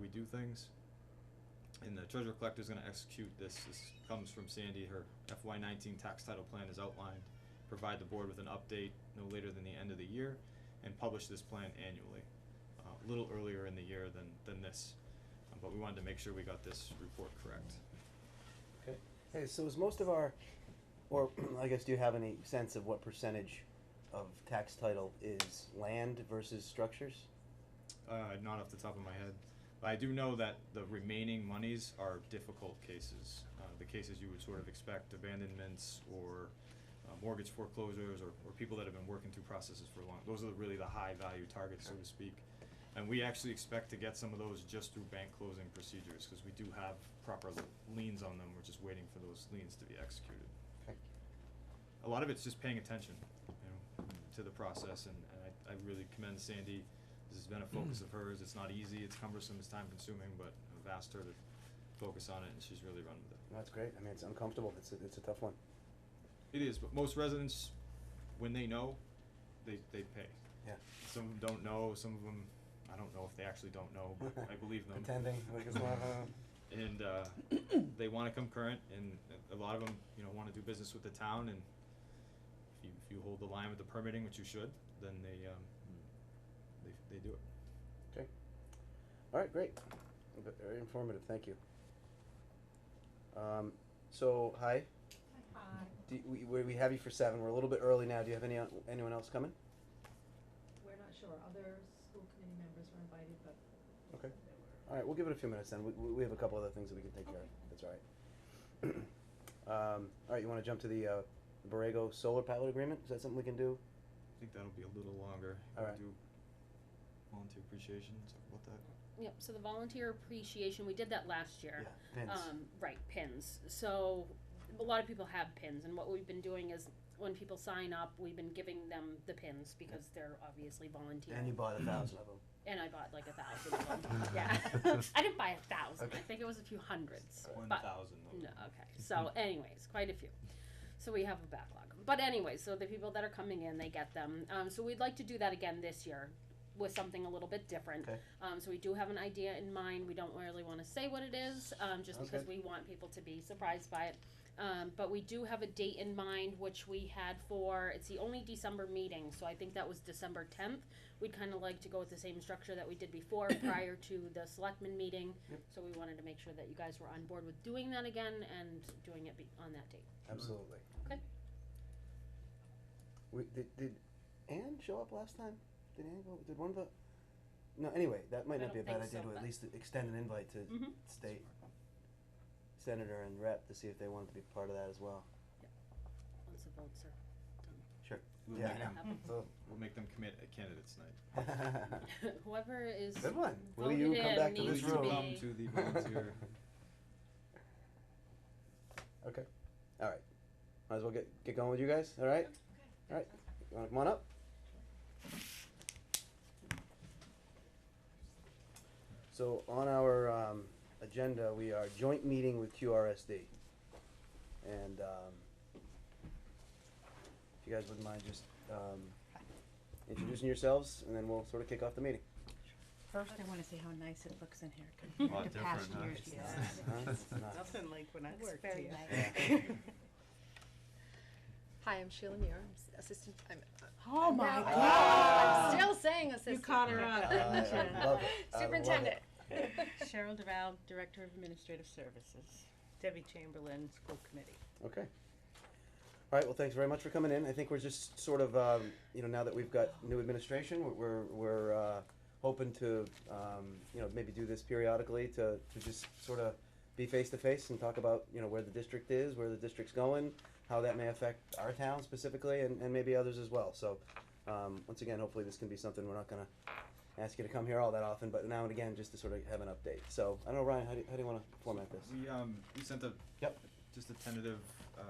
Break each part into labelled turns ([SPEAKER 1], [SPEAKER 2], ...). [SPEAKER 1] we do things. And the treasurer collector's gonna execute this, this comes from Sandy, her FY nineteen tax title plan is outlined. Provide the board with an update no later than the end of the year and publish this plan annually. Uh, a little earlier in the year than, than this, uh, but we wanted to make sure we got this report correct.
[SPEAKER 2] Hey, so is most of our, or I guess, do you have any sense of what percentage of tax title is land versus structures?
[SPEAKER 1] Uh, not off the top of my head, but I do know that the remaining monies are difficult cases, uh, the cases you would sort of expect, abandonments or uh, mortgage foreclosures or, or people that have been working through processes for long, those are really the high value targets, so to speak. And we actually expect to get some of those just through bank closing procedures, cause we do have proper liens on them, we're just waiting for those liens to be executed. a lot of it's just paying attention, you know, to the process, and, and I, I really commend Sandy. This has been a focus of hers, it's not easy, it's cumbersome, it's time consuming, but I've asked her to focus on it, and she's really run with it.
[SPEAKER 2] That's great. I mean, it's uncomfortable. It's a, it's a tough one.
[SPEAKER 1] It is, but most residents, when they know, they, they pay.
[SPEAKER 2] Yeah.
[SPEAKER 1] Some of them don't know, some of them, I don't know if they actually don't know, but Oh, I believe them.
[SPEAKER 2] Pretending like it's not. uh,
[SPEAKER 1] and uh, they want to come current, and a lot of them, you know, want to do business with the town, and if you, if you hold the line with the permitting, which you should, then they um, they, they do it.
[SPEAKER 2] All right, great. Ve- Very informative. Thank you. Um, so hi,
[SPEAKER 3] Hi,
[SPEAKER 2] do, we we we have you for seven. We're a little bit early now. Do you have any o- anyone else coming?
[SPEAKER 3] we're not sure, other school committee members were invited, but.
[SPEAKER 2] Okay.
[SPEAKER 3] they were-
[SPEAKER 2] All right, we'll give it a few minutes then. We, we we have a couple other things that we can take care of. That's all right. um, all right, you want to jump to the uh, Borrego solar pilot agreement? Is that something we can do?
[SPEAKER 1] I think that'll be a little longer.
[SPEAKER 2] All right.
[SPEAKER 1] Do volunteer appreciation, talk about that.
[SPEAKER 4] Yep, so the volunteer appreciation, we did that last year.
[SPEAKER 2] Yeah, pins.
[SPEAKER 4] Um, right, pins. So a lot of people have pins and what we've been doing is when people sign up, we've been giving them the pins because they're obviously volunteer.
[SPEAKER 2] and you bought a thousand of them.
[SPEAKER 4] And I bought like a thousand of them. Yeah. I didn't buy a thousand. I
[SPEAKER 2] Okay.
[SPEAKER 4] think it was a few hundreds.
[SPEAKER 1] One
[SPEAKER 4] But
[SPEAKER 1] thousand. of
[SPEAKER 4] No,
[SPEAKER 1] them.
[SPEAKER 4] okay. So, anyways, quite a few. So we have a backlog. But anyways, so the people that are coming in, they get them. Um, so we'd like to do that again this year with something a little bit different.
[SPEAKER 2] Okay.
[SPEAKER 4] Um, so we do have an idea in mind. We don't really want to say what it is, um,
[SPEAKER 2] Sounds
[SPEAKER 4] just because
[SPEAKER 2] good.
[SPEAKER 4] we want people to be surprised by it. Um, but we do have a date in mind, which we had for, it's the only December meeting, so I think that was December tenth. We'd kind of like to go with the same structure that we did before, prior to the selectmen meeting.
[SPEAKER 2] Yep.
[SPEAKER 4] So we wanted to make sure that you guys were on board with doing that again and doing it be- on that date.
[SPEAKER 2] Absolutely.
[SPEAKER 4] Mm-hmm. Okay.
[SPEAKER 2] We, did, did Anne show up last time? Did Anne go? Did one of the? No. Anyway, that might
[SPEAKER 4] I
[SPEAKER 2] not be a
[SPEAKER 4] don't
[SPEAKER 2] bad
[SPEAKER 4] think
[SPEAKER 2] idea
[SPEAKER 4] so,
[SPEAKER 2] to at
[SPEAKER 4] but-
[SPEAKER 2] least extend an invite to
[SPEAKER 4] Mhm.
[SPEAKER 2] state senator and rep to see if they wanted to be part of that as well.
[SPEAKER 4] Once the votes are
[SPEAKER 1] We'll
[SPEAKER 2] Yeah,
[SPEAKER 1] make
[SPEAKER 2] I
[SPEAKER 1] them-
[SPEAKER 4] happening.
[SPEAKER 1] We'll make them commit at candidates night.
[SPEAKER 4] Whoever is
[SPEAKER 2] Good one. Will
[SPEAKER 4] voted
[SPEAKER 2] you
[SPEAKER 4] in
[SPEAKER 2] come back to
[SPEAKER 1] Will
[SPEAKER 4] needs
[SPEAKER 1] you
[SPEAKER 2] this
[SPEAKER 4] to
[SPEAKER 2] room?
[SPEAKER 1] Come
[SPEAKER 4] be-
[SPEAKER 1] to the volunteer.
[SPEAKER 2] Okay. All right. Might as well get get going with you guys. All right. All right. You want to come on up? So on our um, agenda, we are joint meeting with QRSD, and um, if you guys wouldn't mind just um, introducing yourselves, and then we'll sort of kick off the meeting.
[SPEAKER 5] First, I wanna see how nice it looks in here
[SPEAKER 1] A lot
[SPEAKER 5] compared to past
[SPEAKER 1] different, huh?
[SPEAKER 5] years.
[SPEAKER 3] Yeah.
[SPEAKER 2] Huh? It's not-
[SPEAKER 6] Nothing like when I
[SPEAKER 5] Looks
[SPEAKER 6] worked
[SPEAKER 5] very
[SPEAKER 6] here.
[SPEAKER 5] nice.
[SPEAKER 7] Hi, I'm Sheila Muir, I'm s- assistant, I'm,
[SPEAKER 5] Oh my
[SPEAKER 7] now-
[SPEAKER 2] Ah.
[SPEAKER 5] god.
[SPEAKER 7] I'm still saying assistant.
[SPEAKER 6] caught her up, didn't
[SPEAKER 2] I
[SPEAKER 6] you?
[SPEAKER 2] love it. I love it.
[SPEAKER 7] Superintendent.
[SPEAKER 5] Cheryl Deval,
[SPEAKER 6] Director of Administrative Services, Debbie Chamberlain, School Committee.
[SPEAKER 2] Okay. All right, well, thanks very much for coming in. I think we're just sort of, um, you know, now that we've got new administration, we're- we're, we're, uh, hoping to, um, you know, maybe do this periodically to, to just sort of be face to face and talk about, you know, where the district is, where the district's going, how that may affect our town specifically and, and maybe others as well. So, um, once again, hopefully this can be something we're not gonna ask you to come here all that often, but now and again, just to sort of have an update. So, I don't know, Ryan, how do, you- how do you wanna format this?
[SPEAKER 1] We, um, we sent a.
[SPEAKER 2] Yep.
[SPEAKER 1] Just a tentative, uh,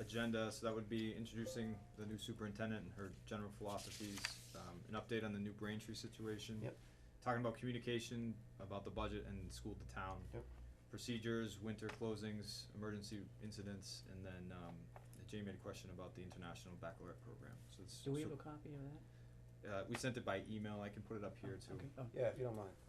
[SPEAKER 1] agenda, so that would be introducing the new superintendent and her general philosophies, um, an update on the new Braintree situation.
[SPEAKER 2] Yep.
[SPEAKER 1] Talking about communication, about the budget and school to town.
[SPEAKER 2] Yep.
[SPEAKER 1] Procedures, winter closings, emergency incidents, and then, um, Jay made a question about the international baccalaureate program, so it's.
[SPEAKER 8] Do we
[SPEAKER 1] so-
[SPEAKER 8] have a copy of that?
[SPEAKER 1] Uh, we sent it by email, I can put it up here too.
[SPEAKER 8] Okay. Oh,
[SPEAKER 2] Yeah, if you don't mind.